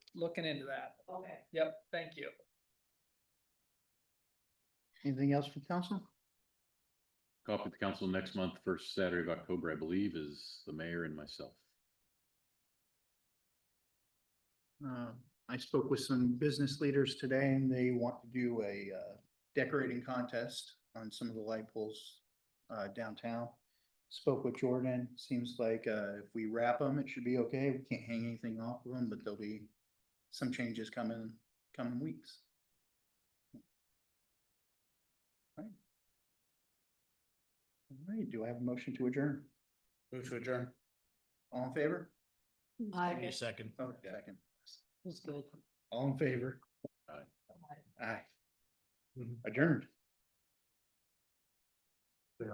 looking into that. Okay. Yep, thank you. Anything else from council? Coffee with the council next month, first Saturday of October, I believe, is the mayor and myself. Uh, I spoke with some business leaders today and they want to do a uh, decorating contest on some of the light poles uh, downtown. Spoke with Jordan, seems like uh, if we wrap them, it should be okay. We can't hang anything off of them, but there'll be some changes coming, coming weeks. All right. All right, do I have a motion to adjourn? Move to adjourn. All in favor? Give me a second. Oh, second. That's good. All in favor? Aye. Aye. Mhm. Adjourned.